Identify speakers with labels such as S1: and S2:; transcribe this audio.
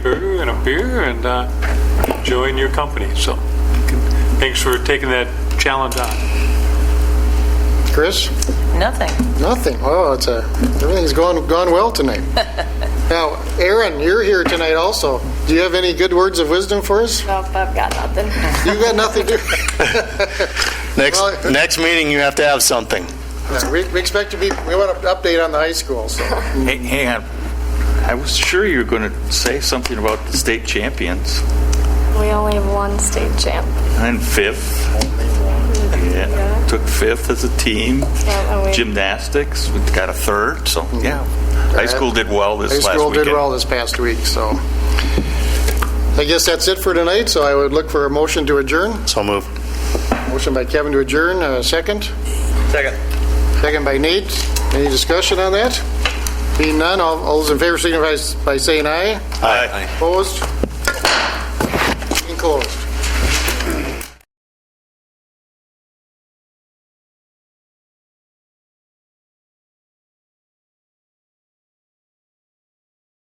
S1: and a beer and uh, enjoying your company. So thanks for taking that challenge on.
S2: Chris?
S3: Nothing.
S2: Nothing. Oh, it's a, everything's gone, gone well tonight. Now, Aaron, you're here tonight also. Do you have any good words of wisdom for us?
S4: Nope, I've got nothing.
S2: You've got nothing to...
S5: Next,
S2: Well- uh,
S5: next meeting, you have to have something.
S2: Yeah, We we expect to be, we want an update on the high school, so.
S6: Hey, hang on. I was sure you were going to say something about the state champions
S4: We only have one state champ,
S6: and fifth. Yeah, took fifth as a team.
S4: Yeah, and we-
S6: Gymnastics, we got a third. So yeah, high school did well this
S2: Mm-hmm. High
S6: last
S2: school
S6: weekend.
S2: did well this past week, so. I guess that's it for tonight, so I would look for a motion to adjourn.
S5: So moved.
S2: Motion by Kevin to adjourn, uh, second.
S6: Second.
S2: Second by Nate. Any discussion on that? Being none, all all those in favor signify by saying aye.
S5: Aye.
S2: Opposed?